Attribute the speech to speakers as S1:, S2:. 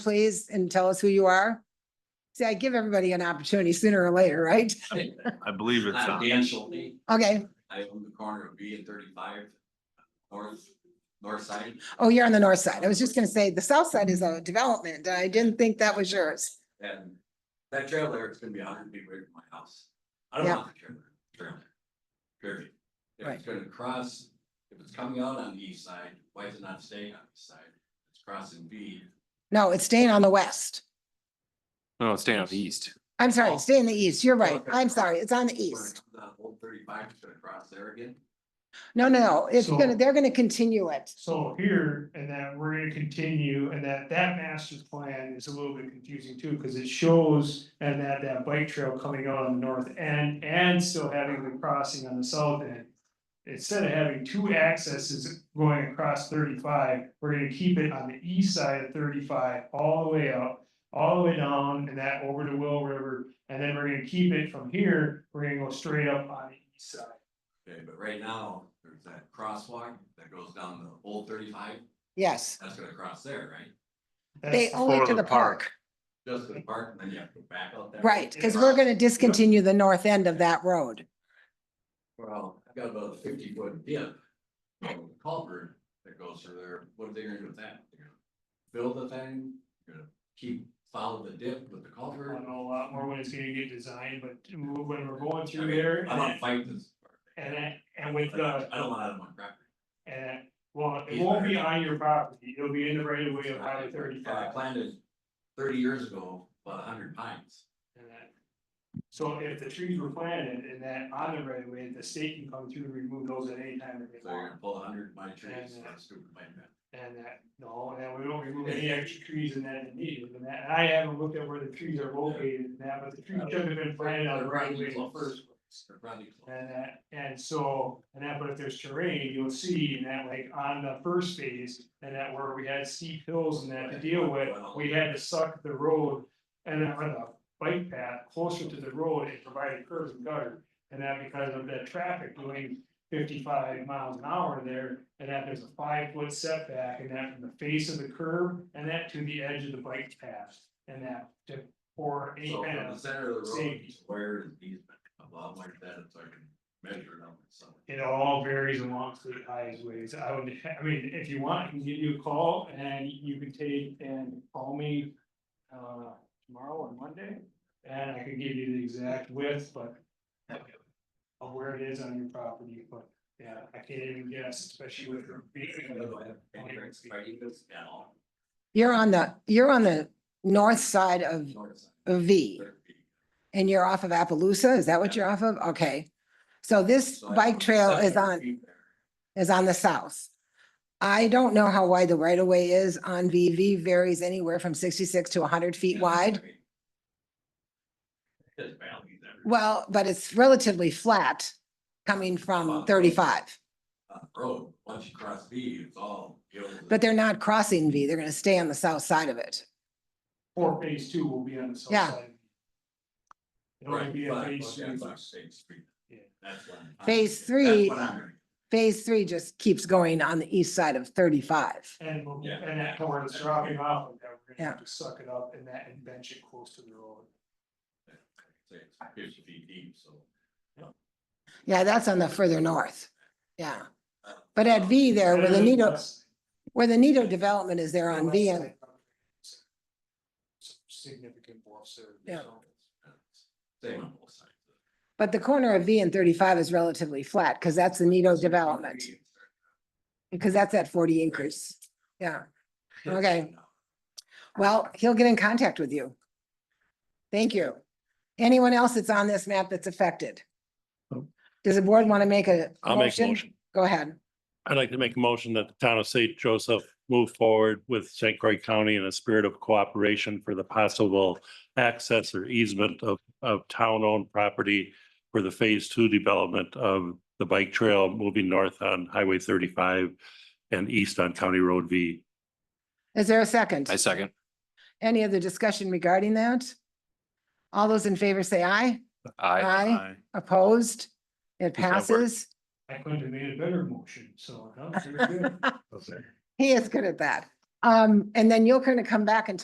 S1: please, and tell us who you are? See, I give everybody an opportunity sooner or later, right?
S2: I believe it's
S3: I'm
S2: on.
S3: Dan Schulte.
S1: Okay.
S3: I own the corner of B and thirty-five, north, north side.
S1: Oh, you're on the north side. I was just gonna say, the south side is a development. I didn't think that was yours.
S3: And that trailer is gonna be a hundred feet away from my house. I don't
S1: Yeah.
S3: want the trailer, trailer. Period. If it's
S1: Right.
S3: gonna cross, if it's coming out on the east side, why is it not staying on the east side? It's crossing B.
S1: No, it's staying on the west.
S2: No, it's staying on the east.
S1: I'm sorry, it's staying the east. You're right.
S3: Okay.
S1: I'm sorry. It's on the
S3: Where
S1: east.
S3: The old thirty-five is gonna cross there again.
S1: No, no, no. It's
S4: So-
S1: gonna, they're gonna continue it.
S4: So here, and that we're gonna continue, and that, that master plan is a little bit confusing too, cause it shows. And that, that bike trail coming out on the north end, and still having the crossing on the south end. Instead of having two accesses going across thirty-five, we're gonna keep it on the east side of thirty-five, all the way up. All the way down and that over to Will River, and then we're gonna keep it from here, we're gonna go straight up on the east side.
S3: Okay, but right now, there's that crosswalk that goes down the old thirty-five,
S1: Yes.
S3: that's gonna cross there, right?
S1: They
S4: That's-
S1: own it
S2: before
S1: to
S2: the
S1: the park.
S3: Just to the park, and then you have to go back out there.
S1: Right, because we're gonna discontinue the north end of that road.
S3: Well, I've got about a fifty foot dip. of Culvert that goes through there, what are they gonna do with that? They're gonna Build the thing, They're gonna keep, follow the dip with the
S4: I
S3: culvert.
S4: don't know a lot more when it's gonna get designed, but when we're going through there
S3: I don't
S4: and,
S3: fight this.
S4: and, and with
S3: I
S4: the,
S3: don't want it on my property.
S4: and, well, it won't be on your property, it'll be in the right of way of highway
S3: I
S4: thirty-five.
S3: planted thirty years ago, about a hundred pines.
S4: and that- So if the trees were planted and that on the right of way, the state can come through and remove those at any time that
S3: So
S4: they
S3: you're
S4: want.
S3: gonna pull a hundred of my trees, that's stupid, my man.
S4: And that, no, and that we don't remove any extra trees in that immediately, and that, and I haven't looked at where the trees are located and that, but the
S3: Uh,
S4: trees should have been planted on the right of way in the first place.
S3: They're probably close.
S4: And that, and so, and that, but if there's terrain, you'll see in that, like, on the first phase, and that where we had steep hills and that to deal with, we had to suck the road. And then on the bike path closer to the road and provided curves and gutter, and that because of that traffic doing fifty-five miles an hour there. And that there's a five-foot setback, and that from the face of the curb, and that to the edge of the bike path, and that to, or any
S3: So
S4: kind
S3: from the
S4: of,
S3: center of the road,
S4: safety.
S3: where is the easement, above like that, so I can measure it out myself.
S4: it all varies along state highways. I would, I mean, if you want, I can give you a call and you can take and call me. Uh, tomorrow or Monday, and I can give you the exact width, but. Of where it is on your property, but yeah, I can't even guess, especially with.
S1: You're on the, you're on the north side of of V and you're off of Appaloosa. Is that what you're off of? Okay. So this bike trail is on, is on the south. I don't know how wide the right of way is on V. V varies anywhere from sixty-six to hundred feet wide.
S3: There's valleys everywhere.
S1: Well, but it's relatively flat coming from thirty-five,
S3: On the Road, once you cross B, it's all. hills and-
S1: but they're not crossing V. They're gonna stay on the south side of it.
S4: Or phase two will be on the south
S1: Yeah.
S4: side. It'll
S3: Right,
S4: only be a
S3: but-
S4: phase
S3: okay,
S4: two.
S3: but State Street.
S4: Yeah.
S3: That's what I'm-
S1: Phase
S3: that's
S1: three-
S3: what I'm gonna-
S1: Phase three just keeps going on the east side of thirty-five.
S4: And, we'll-
S3: Yeah.
S4: and that where it's dropping off, and that we're
S1: Yeah.
S4: gonna have to suck it up and that and bench it close to the road.
S3: say it's Fifty feet deep, so.
S1: Yeah, that's on the further north. Yeah. But at V there, where the Nito, where the Nito development is there on V and
S4: Some Significant bluffs there.
S1: Yeah.
S4: so.
S3: Same on both sides.
S1: But the corner of V and thirty-five is relatively flat, because that's the Nito development, because that's at forty acres. Yeah, Okay. well, he'll get in contact with you. Thank you. Anyone else that's on this map that's affected? Does the board want to make a?
S5: I'll make a motion.
S1: Go ahead.
S5: I'd like to make a motion that the town of St. Joseph move forward with St. Croix County in a spirit of cooperation for the possible access or easement of, of town-owned property for the phase two development of the bike trail moving north on Highway thirty-five and east on County Road V.
S1: Is there a second?
S2: I second.
S1: Any other discussion regarding that? All those in favor say aye.
S2: I,
S1: Aye. Opposed? It
S5: that work?
S1: passes.
S4: I couldn't have made a better motion, so. no, very good.
S1: He is good at that. Um, and then you're going to come back and